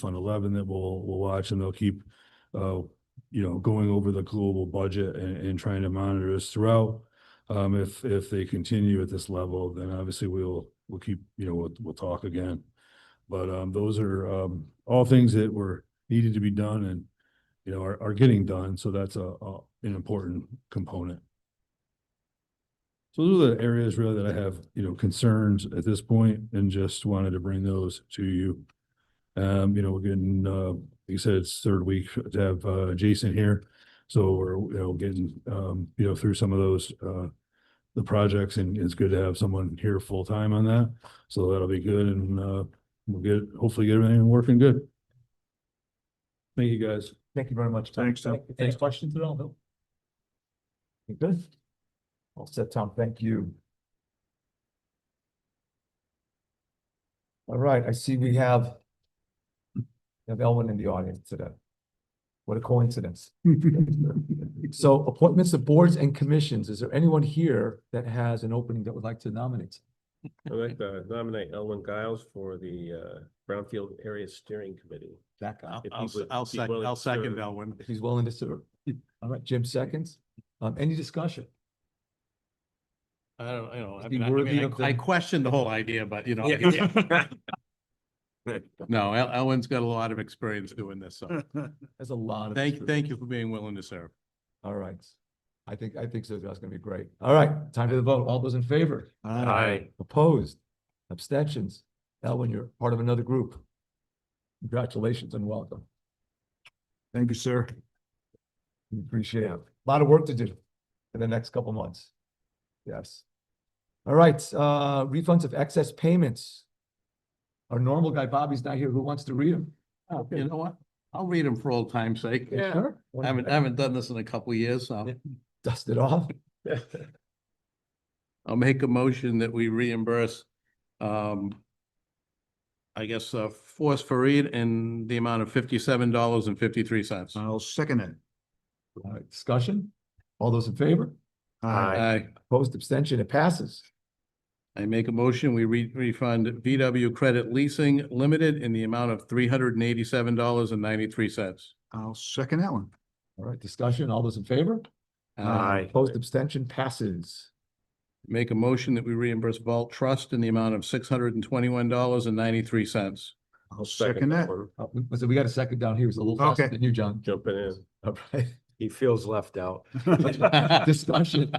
Fund Eleven that we'll, we'll watch and they'll keep, uh, you know, going over the global budget and, and trying to monitor us throughout. Um, if, if they continue at this level, then obviously we'll, we'll keep, you know, we'll, we'll talk again. But, um, those are, um, all things that were needed to be done and, you know, are, are getting done. So that's a, a- an important component. So those are the areas really that I have, you know, concerns at this point and just wanted to bring those to you. Um, you know, we're getting, uh, like I said, it's third week to have, uh, Jason here. So we're, you know, getting, um, you know, through some of those, uh, the projects and it's good to have someone here full time on that. So that'll be good and, uh, we'll get, hopefully get everything working good. Thank you, guys. Thank you very much. Tom. Thanks, Tom. Any questions at all, Bill? You good? All set, Tom. Thank you. All right, I see we have we have Elwin in the audience today. What a coincidence. So appointments of boards and commissions. Is there anyone here that has an opening that would like to nominate? I'd like to nominate Elwin Giles for the uh, Brownfield Area Steering Committee. That guy. I'll, If he I'll, se- would I'll be second, willing I'll to second serve. that one. If he's willing to serve. All right, Jim seconds. Um, any discussion? I don't, you know, I Be mean, I- I worthy mean, of the- I- I questioned the whole idea, but you know. No, El- Elwin's got a lot of experience doing this, so There's a lot of. thank, thank you for being willing to serve. All right. I think, I think so. That's gonna be great. All right, time for the vote. All those in favor? Opposed? Abstentions? Elwin, you're part of another group. Congratulations and welcome. Thank you, sir. We Appreciate it. A Lot of work to do in the next couple months. Yes. All right, uh, refunds of excess payments. Our normal guy Bobby's not here. Who wants to read them? You know what? I'll read them for old time's sake. Sure. I haven't, I haven't done this in a couple of years, so. Dust it off. I'll make a motion that we reimburse, um, I guess, uh, Force Fareed in the amount of fifty-seven dollars and fifty-three cents. I'll second it. All right, discussion? All those in favor? Aye. I, Opposed, abstention, it passes. I make a motion, we re- refund VW Credit Leasing Limited in the amount of three hundred and eighty-seven dollars and ninety-three cents. I'll second that one. All right, discussion, all those in favor? Uh, Opposed, abstention passes. Make a motion that we reimburse Vault Trust in the amount of six hundred and twenty-one dollars and ninety-three cents. I'll second that. one. Uh, we- So we got a second down here. It was a little faster Okay. than you, John. Jumping in. All right, He feels left out. discussion.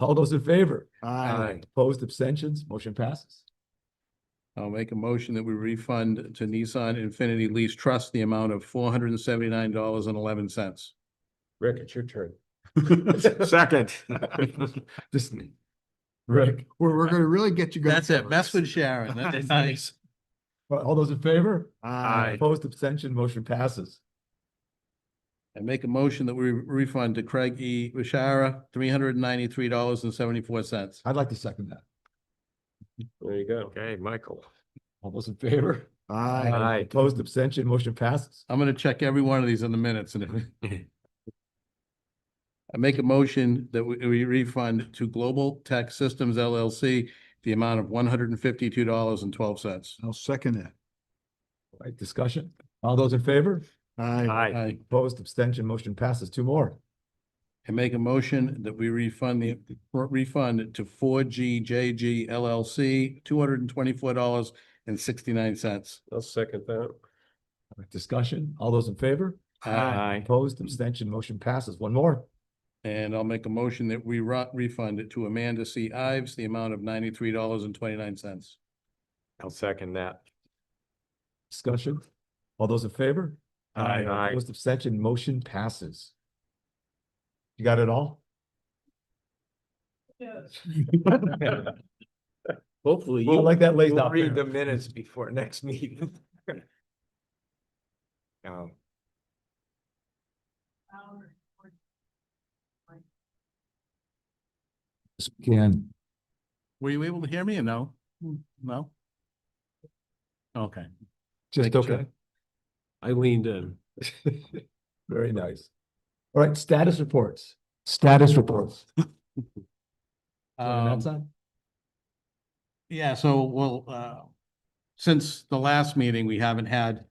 All those in favor? Aye. Opposed, abstentions, motion passes. I'll make a motion that we refund to Nissan Infinity Lease Trust the amount of four hundred and seventy-nine dollars and eleven cents. Rick, it's your turn. Second. Just Rick, We're, we're gonna really get you. going. That's it, mess with Sharon, that's nice. all those in favor? Aye. Opposed, abstention, motion passes. I make a motion that we refund to Craig E. Bishara three hundred and ninety-three dollars and seventy-four cents. I'd like to second that. There you go. Okay, Michael. All those in favor? Aye. Aye. Opposed, abstention, motion passes. I'm gonna check every one of these in the minutes and. if- I make a motion that we, we refund to Global Tech Systems LLC the amount of one hundred and fifty-two dollars and twelve cents. I'll second that. All Right, discussion, all those in favor? Aye. I, Opposed, abstention, motion passes. Two more. I make a motion that we refund the, refund to Four G J G LLC, two hundred and twenty-four dollars and sixty-nine cents. I'll second that. All right, Discussion, all those in favor? Opposed, abstention, motion passes. One more. And I'll make a motion that we ru- refund it to Amanda C. Ives, the amount of ninety-three dollars and twenty-nine cents. I'll second that. Discussion? All those in favor? Aye. Aye. Opposed, abstention, motion passes. You got it all? Hopefully. I you- like that laid We'll out read the there. minutes before next meeting. Um, Can. Were you able to hear me or no? No? Okay. Just Thank you, okay. I leaned in. Very nice. All right, status reports. Status reports. Um, yeah, so, well, uh, since the last meeting, we haven't had